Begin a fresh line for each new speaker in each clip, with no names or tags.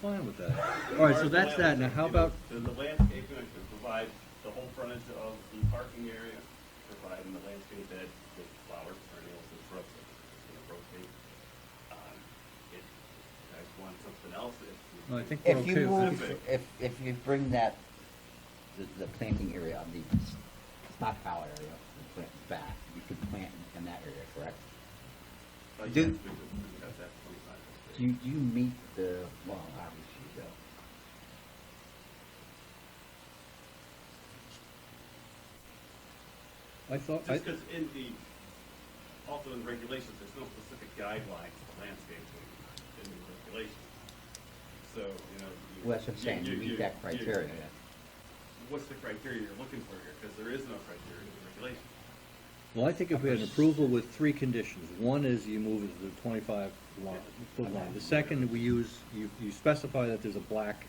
fine with that. All right, so that's that. Now, how about,
The the landscaping, I could provide the whole frontage of the parking area, providing the landscape bed with flowers, perennials, and shrubs that, you know, rotate. Um, If you guys want something else, if.
no, I think we're
If you
okay with
move,
that.
if, if you bring that, the, the planting area on the s- stockpile area, you plant back, you could plant in- in that area, correct?
Uh,
do-
yes, we could- we could have that twenty-five.
Do you, do you meet the, well, obviously you don't.
I thought, I,
Just because in the, also in regulations, there's no specific guidelines for landscaping in the regulations. So, you know. you-
Well, that's what
you-
I'm saying, you meet that
you-
criteria.
What's the criteria you're looking for here? Because there is no criteria in the regulations.
well, I think if we had an approval with three conditions, one is you move it to the twenty-five line, foot line. The second, we use, you, you specify that there's a black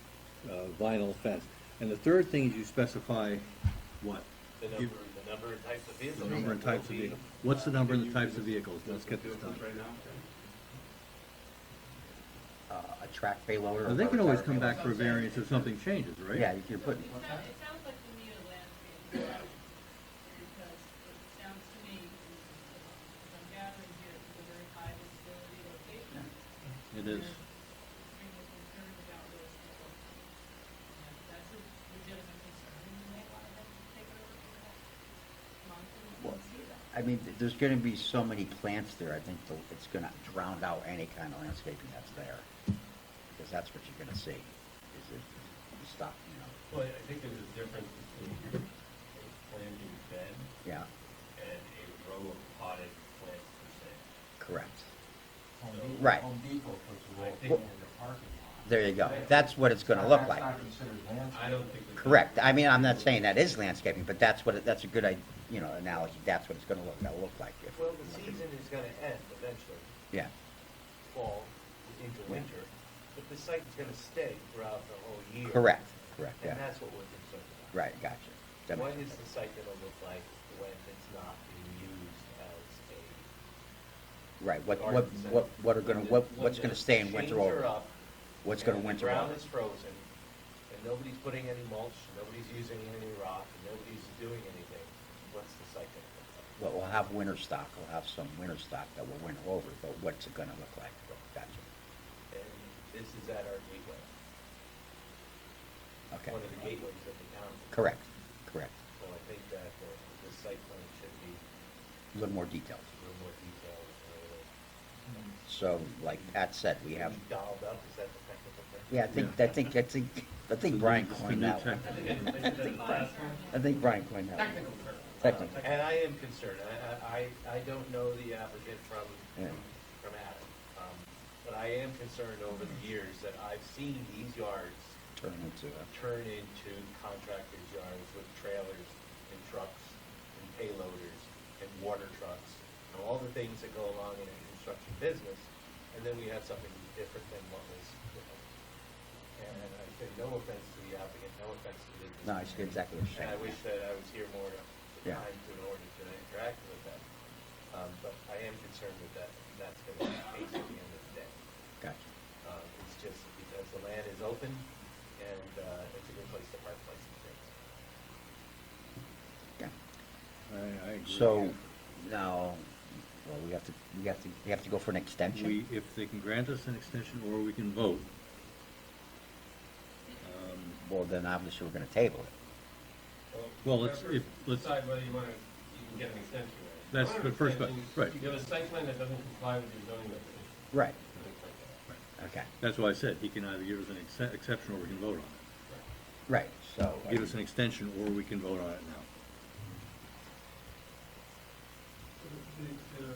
uh, vinyl fence. And the third thing is you specify what?
The
You-
number, the number and types of
The
vehicles.
number and
that will
types of
be-
vehicles. What's the number and the
You
types
can
of
just-
vehicles? Let's get this
vehicles
done.
Right now?
Uh, a track payloader. or
I think we can
a
always
road
come
payloader.
back for a variance if something changes, right?
Yeah, you can
So
put,
It sounds, it sounds like we need a landscape plan, because it sounds to me, as I'm gathering here, it's a very high visibility location.
It is.
There's real concern about those people. And if That's a legitimate concern, and you may want to take a look at that. Monitor it
Well,
and see that.
I mean, th- there's gonna be so many plants there, I think the- it's gonna drown out any kind of landscaping that's there. Because that's what you're gonna see, is it, stop, you know,
Well, I think there's a difference between a planting bed
yeah,
and a row of potted plants per se.
correct.
Home Depot-
Right.
Home Depot puts a
I
wall
think-
in their parking lot.
There you go, that's what it's gonna look like.
That's not considered landscape.
I don't think. that-
Correct, I mean, I'm not saying that is landscaping, but that's what, it- that's a good, i- you know, analogy, that's what it's gonna look, that'll look like. if-
Well, the season is gonna end eventually,
Yeah,
fall into winter, but the site is gonna stay throughout the whole year.
correct, correct,
And
yeah,
that's what we're concerned about.
right, gotcha. That
What
makes
is
sense.
the site gonna look like when it's not being used as
Right, what, what, what, what are
a?
gonna, what, what's gonna stay in winter
Chains are
over?
up,
What's gonna
and the
winter
Ground
over?
is frozen, and nobody's putting any mulch, nobody's using any rock, and nobody's doing anything, what's the site gonna look like?
Well, we'll have winter stock, we'll have some winter stock that will winter over, but what's it gonna look like? Gotcha,
And this is at our gateway,
okay,
one of the gateways of the town.
correct, correct,
So I think that the, the site plan should be
a little more detailed.
a little more detailed, and a little
So, like Pat said, we have,
dialed up, is that the technical term?
yeah, I think, I think, I think, I think Brian coined that one.
I think I said that last one.
I think Brian coined that one. Technical.
Uh, And I am concerned, I, I, I I don't know the applicant from,
Yeah.
from Adam, um, but I am concerned over the years that I've seen these yards
Turn into a,
turn into contractors' yards with trailers and trucks and payloaders and water trucks and all the things that go along in a construction business, and then we have something different than what was. And I say, no offense to the applicant, no offense to the.
no, it's exactly what you're
And I
saying.
wish that I was here more to, to
Yeah.
time to an ordinance and interact with that. Um, but I am concerned with that, that's gonna be the case at the end of the day.
Gotcha.
Uh, it's just because the land is open and, uh, it's a good place to park places.
Yeah.
I, I agree.
So, now, well, we have to, we have to, we have to go for an
We,
extension.
if they can grant us an extension or we can vote. Um,
Well, then obviously we're gonna table it.
Well, let's- if- let's-
Decide whether you wanna, you can get an extension. right?
That's
One
the first
extension,
part, right.
You have a site plan that doesn't comply with your zoning regulations.
Right,
things like that.
okay,
That's why I said he can either give us an exce- exception or we can vote on it.
right, so. I
Give
mean-
us an extension or we can vote on it now.
The, the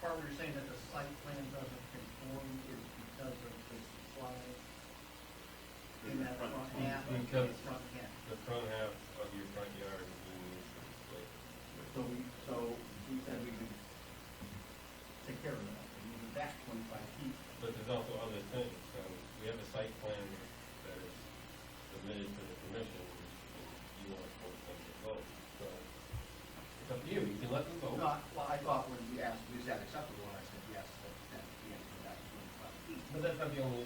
part where you're saying that the site plan doesn't conform is because of the supply in that front half, in the
Because-
front half.
The front half of your front yard is being used for display.
So we, so we said we could take care of that, and move it back twenty-five feet.
But there's also other things, so we have a site plan that is submitted to the commission, and you want to force them to vote, so it's up to you, you can let them vote.
Not, well, I thought when you asked, is that acceptable, and I said yes, that's, that's the answer, that's twenty-five feet.
But that's not the only